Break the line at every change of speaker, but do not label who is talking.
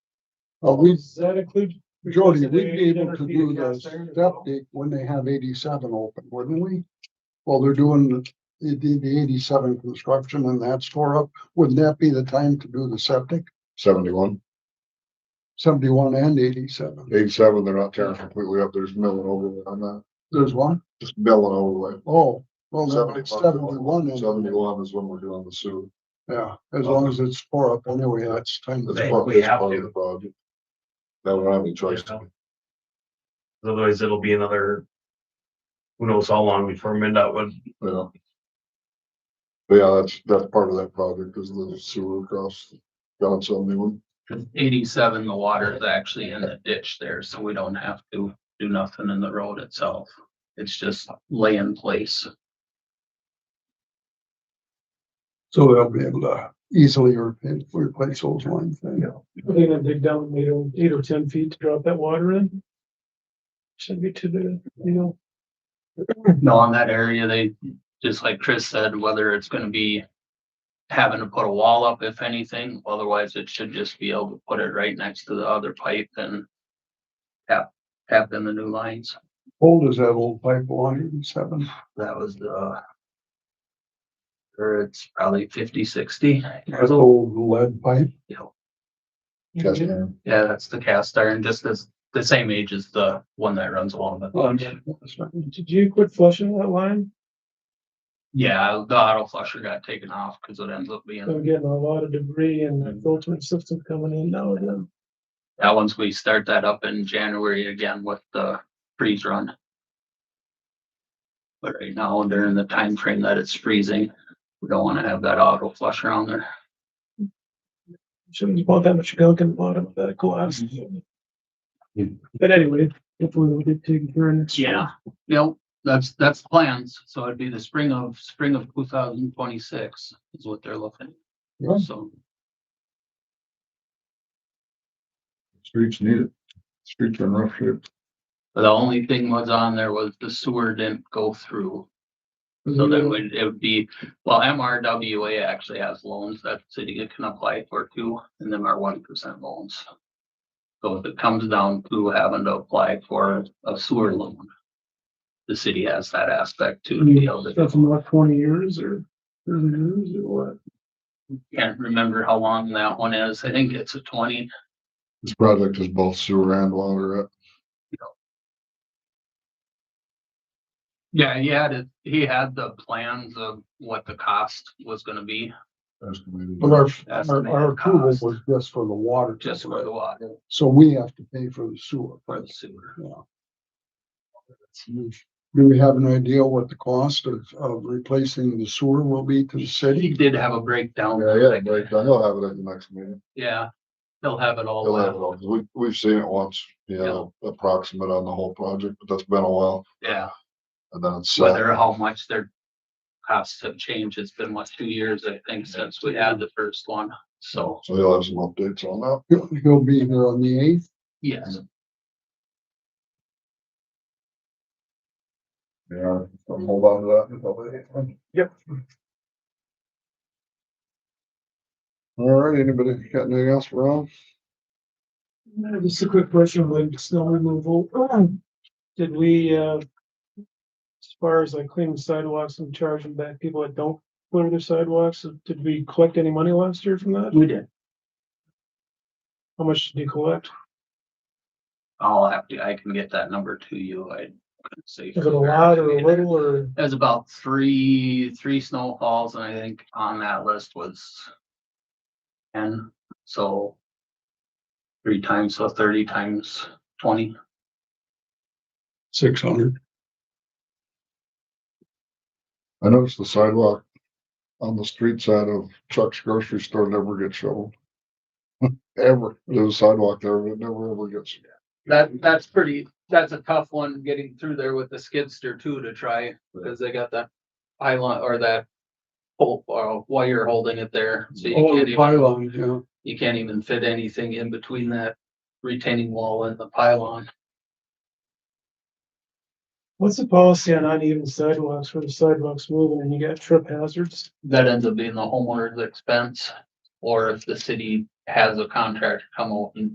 Uh, we,
Does that include?
Jody, we'd be
requested a
able to
dinner
do
theater
the
cast iron as well?
septic when they have eighty-seven open, wouldn't we? Well, they're doing the, the, the eighty-seven construction and that's tore up. Wouldn't that be the time to do the septic?
seventy-one,
Seventy-one and eighty-seven.
eighty-seven, they're not tearing completely up, there's milling overlay on that,
There's one?
just milling overlay.
Oh, well, then it's seventy-one. and-
71 is when we're doing the sewer.
Yeah, as long as it's tore up anyway, that's time.
That's
to
They-
part-
we
that's
have
part of
to.
the project. That would have any choice.
Yeah. Otherwise, it'll be another. Who knows how long before MinDOT would,
Yeah. But yeah, that's, that's part of that project is the sewer across John seventy-one.
Cause eighty-seven, the water is actually in the ditch there, so we don't have to do nothing in the road itself. It's just lay in place.
So they'll be able to easily re- replace those lines then.
Are they gonna dig down eight or, eight or ten feet to drop that water in? Shouldn't be too bad, you know?
No, on that area, they, just like Chris said, whether it's gonna be having to put a wall up, if anything, otherwise it should just be able to put it right next to the other pipe and tap, tap in the new lines.
Old is that old pipe, one hundred and seven?
That was the or it's probably fifty, sixty.
That's old lead pipe.
Cast iron.
Yeah, that's the cast iron, just as the same age as the one that runs along the.
Did you quit flushing that line?
Yeah, the auto flusher got taken off because it ends up being,
I'm getting a lot of debris and the filtering system coming in now and then.
that once we start that up in January again with the freeze run. But right now, during the time frame that it's freezing, we don't want to have that auto flusher on there.
Shouldn't have bought that much gunk in the bottom of that collapse. But anyway, if we would have taken care of it.
Yeah, yep, that's, that's the plans. So it'd be the spring of, spring of two thousand twenty-six is what they're looking.
Yeah.
So,
Streets need it. Streets are in rough shape.
the only thing was on there was the sewer didn't go through. So then would, it would be, well, MRWA actually has loans that the city can apply for too, and them are one percent loans. So if it comes down to having to apply for a sewer loan. The city has that aspect
Mm.
too. to be able to-
That's not twenty years or thirty years or what?
Can't remember how long that one is. I think it's a twenty,
This project is both sewer and water.
Yeah, he had it, he had the plans of what the cost was gonna be,
estimated.
But our, our,
Estimated
our approval
cost.
was just for the water.
just for the water,
So we have to pay for the sewer.
for the sewer.
Do we have an idea what the cost of, of replacing the sewer will be to the
He
city?
did have a breakdown.
Yeah, yeah, but he'll have it at the next meeting.
Yeah, he'll have it all.
He'll have it
out.
all. We, we've seen it once, you know, approximate on the whole project, but that's been a while.
Yeah,
And then it's. set.
whether how much their costs have changed, it's been what, two years, I think, since we had the first one, so,
So he'll have some updates on that.
He'll he'll be here on the eighth.
yes.
Yeah, I'll hold on to that. until the-
Yep.
All right, anybody got anything else for Rob?
Uh, Just a quick question, like snow removal. Did we, uh, as far as like cleaning sidewalks and charging back people that don't clear their sidewalks, did we collect any money last year from that?
We did.
How much did you collect?
I'll have to, I can get that number to you, I couldn't say.
Is it a lot or a little or?
There's about three, three snowfalls, and I think on that list was ten, so three times, so thirty times twenty.
Six hundred.
I noticed the sidewalk on the street side of Chuck's grocery store never gets shoveled. Ever. There's a sidewalk there, but it never ever gets.
That, that's pretty, that's a tough one, getting through there with the skidster too to try, because they got that pylon or that pole or wire holding it there, so you
Oh,
can't
the
even,
pylon, yeah.
you can't even fit anything in between that retaining wall and the pylon.
What's the policy on uneven sidewalks where the sidewalks moving and you got trip hazards?
that ends up being the homeowner's expense. Or if the city has a contractor come out and